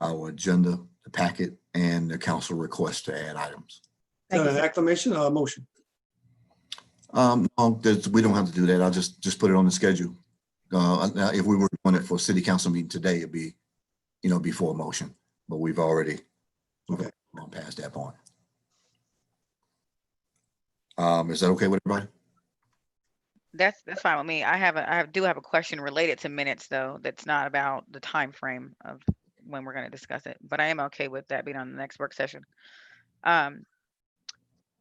our agenda, the packet, and the council request to add items. Is Thank that you, an sir. acclamation or a motion? Um, um, there's- we don't have to do that. I'll just, just put it on the schedule. Uh, now, if we were doing it for a city council meeting today, it'd be, you know, before a motion, but we've already Okay. gone past that point. Um, is that okay with everybody? That's, that's fine with me. I have, a I have- do have a question related to minutes though, that's not about the time frame of when we're gonna discuss it, but I am okay with that being on the next work session. Um,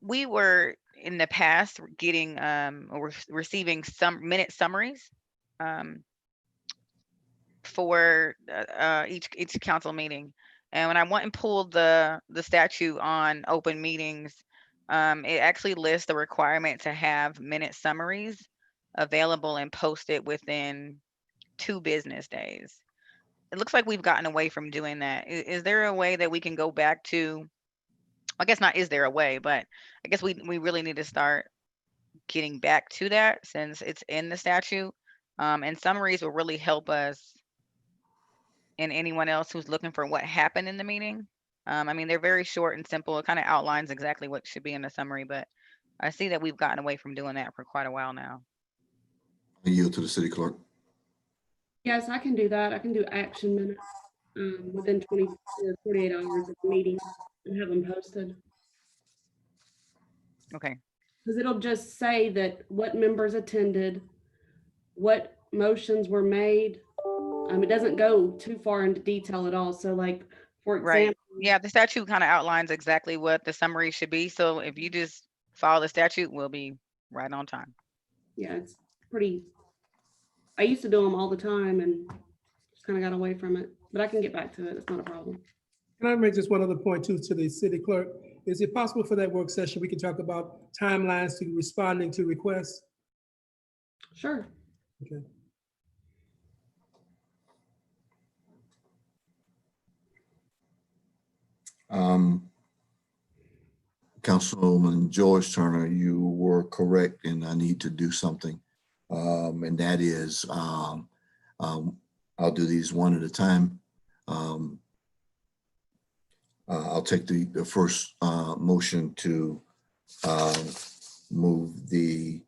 We were in the past getting, um, or rec- receiving some minute summaries. um, For, uh, uh, each, each council meeting. And when I went and pulled the, the statute on open meetings, um, it actually lists the requirement to have minute summaries available and posted within two business days. It looks like we've gotten away from doing that. I- Is, there a way that we can go back to? I guess not, is there a way, but I guess we, we really need to start getting back to that since it's in the statute. Um, and summaries will really help us and anyone else who's looking for what happened in the meeting. Um, I mean, they're very short and simple. It kind of outlines exactly what should be in the summary, but I see that we've gotten away from doing that for quite a while now. I yield to the city clerk. Yes, I can do that. I can do action minutes um, within 20 to 48 hours of the meeting and have them posted. Okay, Because it'll just say that what members attended, what motions were made. Um, It doesn't go too far into detail at all. So like, for Right. example, yeah, the statute kind of outlines exactly what the summary should be, so if you just follow the statute, we'll be right on time. yeah, it's pretty, I used to do them all the time and just kind of got away from it, but I can get back to it. It's not a problem. Can I make just one other point too to the city clerk? Is it possible for that work session, we can talk about timelines to responding to requests? Sure. Okay. Um, Councilman George Turner, you were correct and I need to do something. Um, and that is, um, um, I'll do these one at a time. Um, uh, I'll take the, the first, uh, motion to, um, move the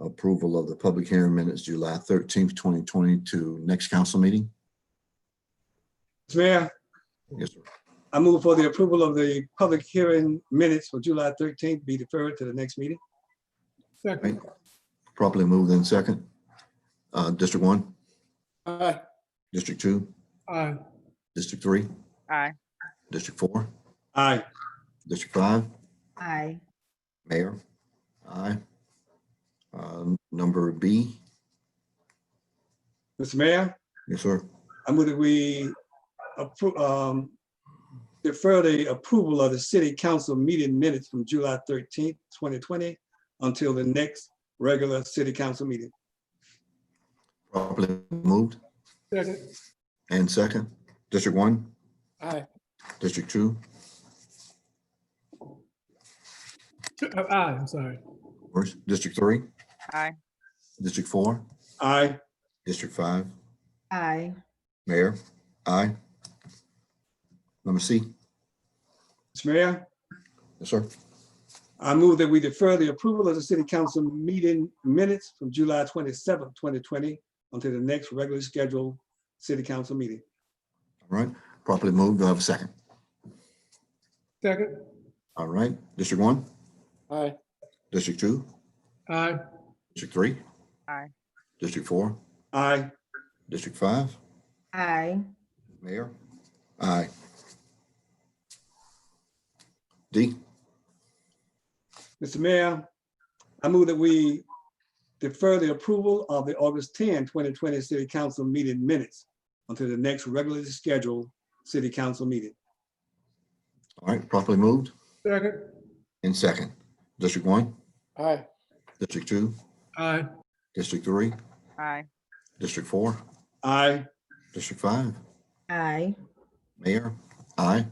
approval of the public hearing minutes, July thirteenth, twenty twenty to next council meeting. Mr. Mayor, Yes, sir. I move for the approval of the public hearing minutes for July thirteenth be deferred to the next meeting. Second, Properly moved in second. Uh, District one, Aye. district two, aye. District three, Aye. District four, Aye. District five, Aye. Mayor. Aye. Uh, Number B, Mr. Mayor, yes, sir. I move that we appro- um, defer the approval of the city council meeting minutes from July thirteenth, twenty twenty until the next regular city council meeting. Properly moved Second, and second. District one, aye. District two, Uh, Aye, I'm sorry. first, District three. Aye. District four, Aye. District five, Aye. Mayor. Aye. Number C, Mr. Mayor, yes, sir. I move that we defer the approval of the city council meeting minutes from July twenty-seventh, twenty twenty until the next regularly scheduled city council meeting. All right, properly moved. Do I have a second? Second, All right, District one, Aye. District two, aye. District three. Aye. District four, Aye. District five, Aye. Mayor? Aye. D, Mr. Mayor, I move that we defer the approval of the August 10, 2020 city council meeting minutes until the next regularly scheduled city council meeting. all right, properly moved Second, in second. District one? Aye. District two, aye. District three, Aye, District four, Aye. District five, Aye. Mayor? Aye.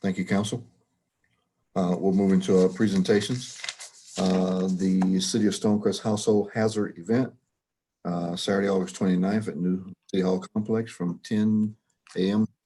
Thank you, council. Uh, we'll move into our presentations. Uh, the City of Stonecrest Household Hazard Event, uh, Saturday, August 29th at New City Hall Complex from ten AM